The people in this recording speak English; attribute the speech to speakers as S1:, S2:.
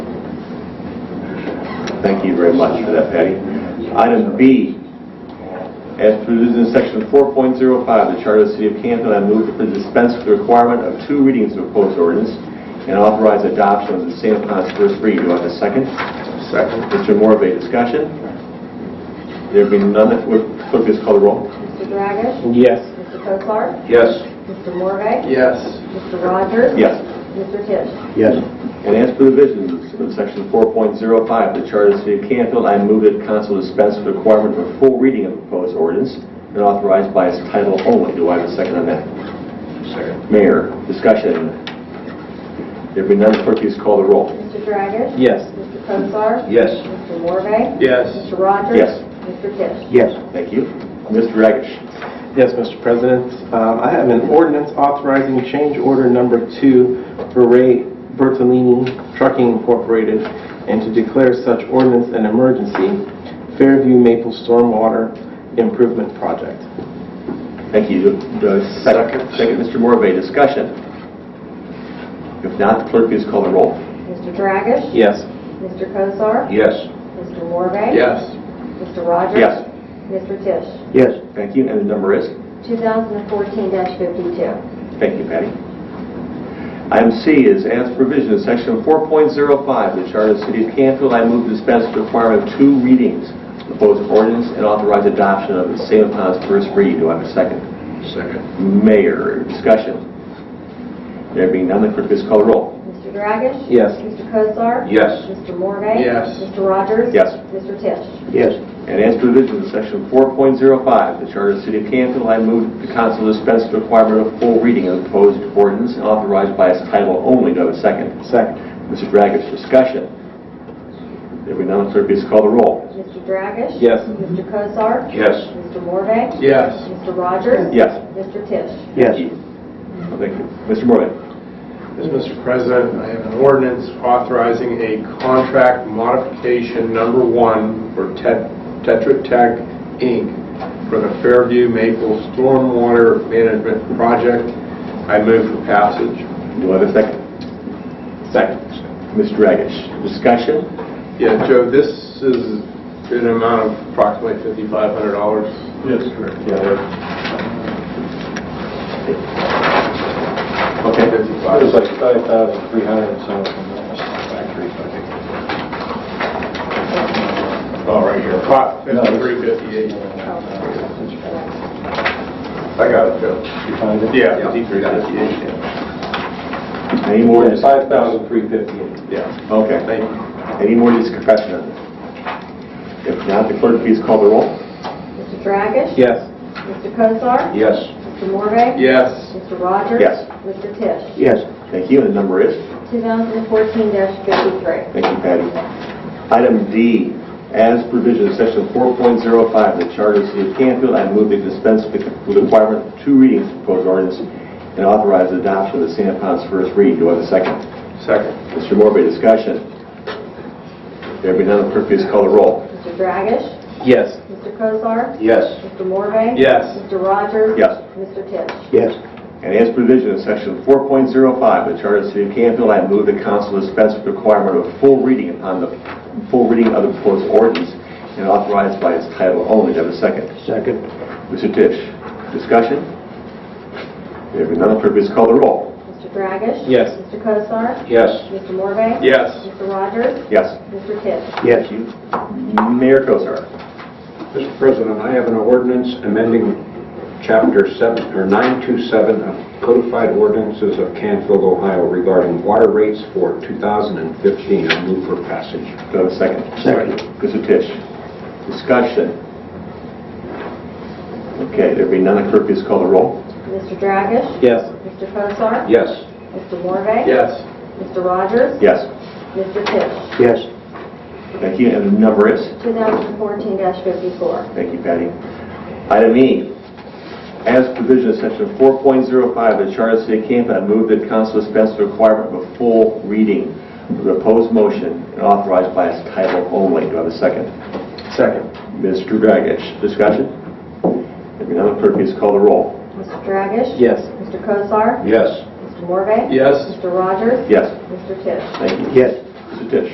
S1: Thank you very much for that, Patty. Item B, as produced in section 4.05 of the Charter of the City of Canfield, I move to dispense with the requirement of two readings of proposed ordinance and authorize adoption of the same upon its first reading. Do I have a second?
S2: Second.
S1: Mr. Morvay, discussion? There being none, would clerk please call the roll?
S3: Mr. Dragish?
S2: Yes.
S3: Mr. Soklar?
S2: Yes.
S3: Mr. Morvay?
S2: Yes.
S3: Mr. Rogers?
S1: Yes.
S3: Mr. Tisch?
S2: Yes.
S1: And as for the visions in section 4.05 of the Charter of the City of Canfield, I move that council dispense with the requirement of a full reading of the proposed ordinance and authorize by its title only. Do I have a second on that?
S2: Second.
S1: Mayor, discussion. There be none, clerk, please call the roll.
S3: Mr. Dragish?
S2: Yes.
S3: Mr. Soklar?
S2: Yes.
S3: Mr. Morvay?
S2: Yes.
S3: Mr. Rogers?
S1: Yes.
S3: Mr. Tisch?
S2: Yes.
S1: Thank you. Mr. Dragish.
S4: Yes, Mr. President. Um, I have an ordinance authorizing change order number two for Ray Bertolini Trucking Incorporated and to declare such ordinance an emergency, Fairview Maple Stormwater Improvement Project.
S1: Thank you. The Second, second, Mr. Morvay, discussion. If not, clerk, please call the roll.
S3: Mr. Dragish?
S4: Yes.
S3: Mr. Soklar?
S2: Yes.
S3: Mr. Morvay?
S2: Yes.
S3: Mr. Rogers?
S1: Yes.
S3: Mr. Tisch?
S2: Yes.
S1: Thank you, and the number is?
S3: 2014-52.
S1: Thank you, Patty. Item C is as provision in section 4.05 of the Charter of the City of Canfield, I move to dispense with the requirement of two readings of proposed ordinance and authorize adoption of the same upon its first reading. Do I have a second?
S2: Second.
S1: Mayor, discussion. There being none, the clerk, please call the roll.
S3: Mr. Dragish?
S4: Yes.
S3: Mr. Kozar?
S2: Yes.
S3: Mr. Morvay?
S2: Yes.
S3: Mr. Rogers?
S1: Yes.
S3: Mr. Tisch?
S2: Yes.
S1: And as provision in section 4.05 of the Charter of the City of Canfield, I move the council dispense with the requirement of full reading of the proposed ordinance and authorize by its title only. Do I have a second?
S4: Second.
S1: Mr. Dragish, discussion. If we now clerk, please call the roll.
S3: Mr. Dragish?
S4: Yes.
S3: Mr. Kozar?
S2: Yes.
S3: Mr. Morvay?
S2: Yes.
S3: Mr. Rogers?
S1: Yes.
S3: Mr. Tisch?
S1: Thank you. Thank you. Mr. Morvay.
S5: Yes, Mr. President, I have an ordinance authorizing a contract modification number one for Tet- Tetra Tech, Inc. for the Fairview Maple Stormwater Management Project. I move for passage.
S1: Do I have a second?
S4: Second.
S1: Mr. Dragish, discussion.
S5: Yeah, Joe, this is an amount of approximately $5,500.
S1: Yes, correct. Okay.
S2: Fifty-five.
S6: It was like 5,300 and something. Factory, I
S5: Oh, right here. Fi- 5358. I got it, Joe.
S6: think. You find it?
S5: Yeah, 5358.
S1: Any more?
S6: Yeah,
S1: dis-
S6: 5,358.
S5: Yeah,
S1: Okay.
S5: thank you.
S1: Any more discussion on this? If not, the clerk, please call the roll.
S3: Mr. Dragish?
S4: Yes.
S3: Mr. Kozar?
S2: Yes.
S3: Mr. Morvay?
S5: Yes.
S3: Mr. Rogers?
S1: Yes.
S3: Mr. Tisch?
S2: Yes.
S1: Thank you, and the number is?
S3: 2014-53.
S1: Thank you, Patty. Item D, as provision in section 4.05 of the Charter of the City of Canfield, I move to dispense with the requirement of two readings of proposed ordinance and authorize the adoption of the same upon its first reading. Do I have a second?
S5: Second.
S1: Mr. Morbe, discussion? There be none, clerk, please call the roll.
S3: Mr. Dragish?
S4: Yes.
S3: Mr. Kozar?
S2: Yes.
S3: Mr. Morvay?
S5: Yes.
S3: Mr. Rogers?
S1: Yes.
S3: Mr. Tisch?
S2: Yes.
S1: And as provision in section 4.05 of the Charter of the City of Canfield, I move the council dispense with the requirement of full reading upon the, full reading of the proposed ordinance and authorize by its title only. Do I have a second?
S2: Second.
S1: Mr. Tisch, discussion? There being none, clerk, please call the roll.
S3: Mr. Dragish?
S4: Yes.
S3: Mr. Kozar?
S2: Yes.
S3: Mr. Morvay?
S5: Yes.
S3: Mr. Rogers?
S1: Yes.
S3: Mr. Tisch?
S2: Yes.
S1: Mayor Kozar.
S2: Mr. President, I have an ordinance amending Chapter 7, or 927 of Codified Ordinances of Canfield, Ohio regarding water rates for 2015. I move for passage.
S1: Do I have a second?
S2: Second.
S1: Mr. Tisch, discussion? Okay, there being none, clerk, please call the roll.
S3: Mr. Dragish?
S4: Yes.
S3: Mr. Kozar?
S2: Yes.
S3: Mr. Morvay?
S5: Yes.
S3: Mr. Rogers?
S1: Yes.
S3: Mr. Tisch?
S2: Yes.
S1: Thank you, and the number is?
S3: 2014-54.
S1: Thank you, Patty. Item E, as provision of section 4.05 of the Charter of the City of Canfield, I move that council dispense with the requirement of a full reading of the proposed motion and authorized by its title only. Do I have a second?
S4: Second.
S1: Mr. Dragish, discussion? If not, clerk, please call the roll.
S3: Mr. Dragish?
S4: Yes.
S3: Mr. Kozar?
S2: Yes.
S3: Mr. Morvay?
S5: Yes.
S3: Mr. Rogers?
S1: Yes,
S3: Mr. Tisch?
S1: thank you.
S2: Yes.